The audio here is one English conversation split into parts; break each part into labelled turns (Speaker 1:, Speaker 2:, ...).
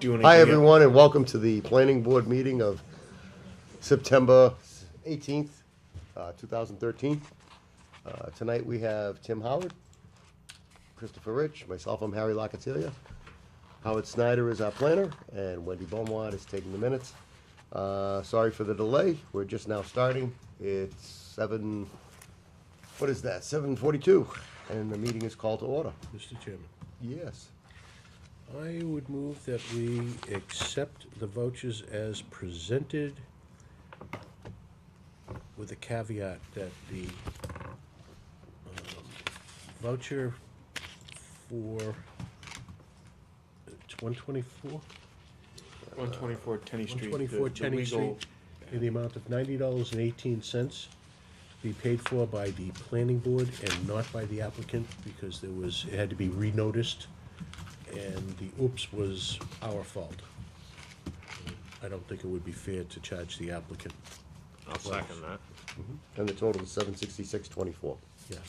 Speaker 1: do anything.
Speaker 2: Hi,
Speaker 1: else.
Speaker 2: everyone, and welcome to the planning board meeting of September 18th, uh, 2013. Uh, Tonight, we have Tim Howard, Christopher Rich, myself, I'm Harry Locatilia. Howard Snyder is our planner, and Wendy Beaumont is taking the minutes. Uh, Sorry for the delay, we're just now starting. It's 7, what is that, 7:42, and the meeting is called to order.
Speaker 3: Mr. Chairman,
Speaker 2: Yes.
Speaker 3: I would move that we accept the vouchers as presented with a caveat that the um, voucher for uh, it's 124?
Speaker 1: 124 Tenny Street.
Speaker 3: 124
Speaker 1: the- the
Speaker 3: Tenny Street,
Speaker 1: legal-
Speaker 3: in the amount of ninety dollars and eighteen cents, be paid for by the planning board and not by the applicant, because there was, it had to be renoticed, and the oops was our fault. I don't think it would be fair to charge the applicant,
Speaker 4: I'll second that.
Speaker 2: And the total is 766.24.
Speaker 3: yes.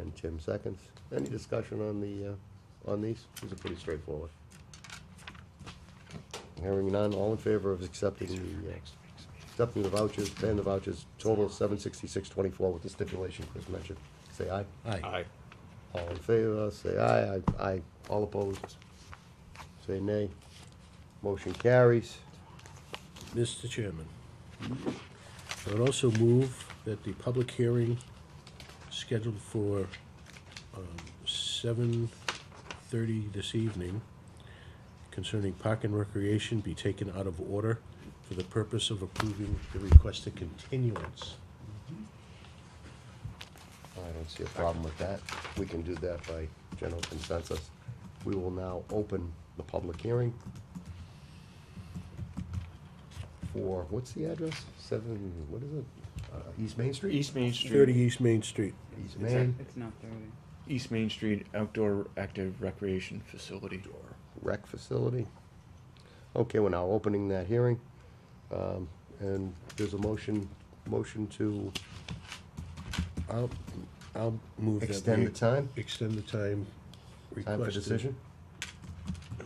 Speaker 2: And Tim seconds. Any discussion on the, uh, on these? These are pretty straightforward. Hearing none, all in favor of accepting the, uh, accepting the vouchers, paying the vouchers, total seven sixty-six twenty-four with the stipulation Chris mentioned. Say aye.
Speaker 3: Aye.
Speaker 2: All in favor, say aye. Aye, aye. All opposed? Say nay. Motion carries.
Speaker 3: Mr. Chairman, I would also move that the public hearing scheduled for um, seven thirty this evening concerning park and recreation be taken out of order for the purpose of approving the requested continuance.
Speaker 2: I don't see a problem with that. We can do that by general consensus. We will now open the public hearing for, what's the address? Seven, what is it? Uh, East Main Street?
Speaker 1: East Main Street.
Speaker 3: Thirty East Main Street.
Speaker 2: East Main
Speaker 5: It's not thirty.
Speaker 1: East Main Street Outdoor Active Recreation Facility.
Speaker 2: Rec Facility. Okay, we're now opening that hearing. Um, and there's a motion, motion to,
Speaker 3: I'll, I'll move that.
Speaker 2: Extend
Speaker 3: we
Speaker 2: the time?
Speaker 3: Extend the time
Speaker 2: time for
Speaker 3: requested.
Speaker 2: decision?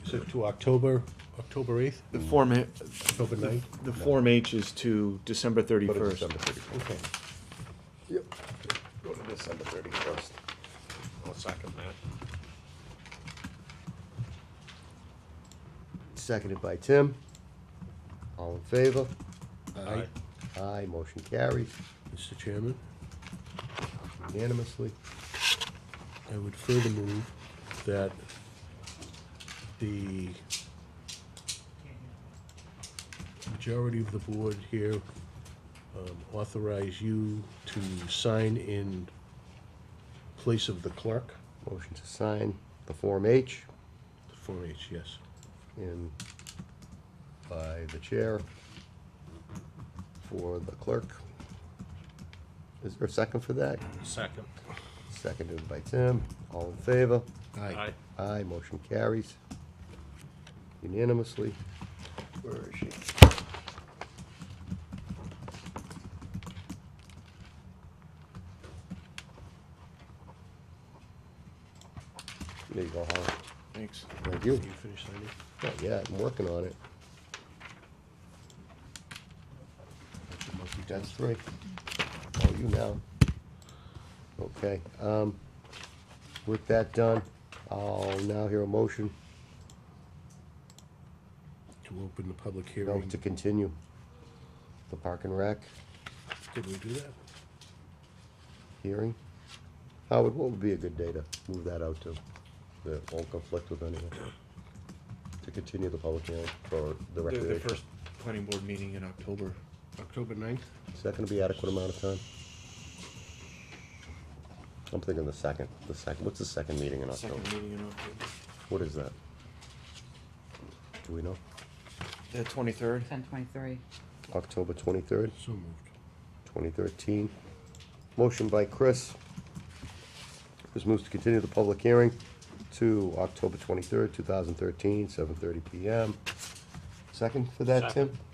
Speaker 3: Is it to October, October eighth,
Speaker 1: The Form, H-
Speaker 3: October ninth?
Speaker 1: the Form H is to December
Speaker 2: Go to
Speaker 1: 31st.
Speaker 2: December thirty-first.
Speaker 3: Okay.
Speaker 2: Yep. Go to December thirty-first.
Speaker 4: I'll second that.
Speaker 2: Seconded by Tim. All in favor?
Speaker 3: Aye.
Speaker 2: Aye, motion carries
Speaker 3: Mr. Chairman,
Speaker 2: unanimously.
Speaker 3: I would further move that the majority of the board here um, authorize you to sign in place of the clerk,
Speaker 2: Motion to sign the Form H
Speaker 3: Form H, yes.
Speaker 2: in by the chair for the clerk. Is there a second for that?
Speaker 4: Second.
Speaker 2: Seconded by Tim. All in favor?
Speaker 4: Aye.
Speaker 2: Aye, motion carries unanimously. Where is she? There you go, Howard.
Speaker 1: Thanks.
Speaker 2: Thank you.
Speaker 3: Did you finish signing?
Speaker 2: Not yet, I'm working on it. That's three. All you now. Okay, um, with that done, I'll now hear a motion,
Speaker 3: To open the public
Speaker 2: no,
Speaker 3: hearing.
Speaker 2: to continue. The park and rec
Speaker 3: Did we do that?
Speaker 2: hearing. Howard, what would be a good day to move that out to? That won't conflict with anyone. To continue the public hearing for the
Speaker 1: The, the
Speaker 2: recreation.
Speaker 1: first planning board meeting in October.
Speaker 3: October ninth?
Speaker 2: Is that gonna be adequate amount of time? I'm thinking the second, the second, what's the second meeting in
Speaker 1: Second
Speaker 2: October?
Speaker 1: meeting in October.
Speaker 2: What is that? Do we know?
Speaker 1: The 23rd.
Speaker 5: Ten twenty-three.
Speaker 2: October twenty-third,
Speaker 3: So moved.
Speaker 2: twenty thirteen. Motion by Chris. Chris moves to continue the public hearing to October twenty-third, two thousand thirteen, seven thirty PM. Second for that, Tim?
Speaker 4: Second.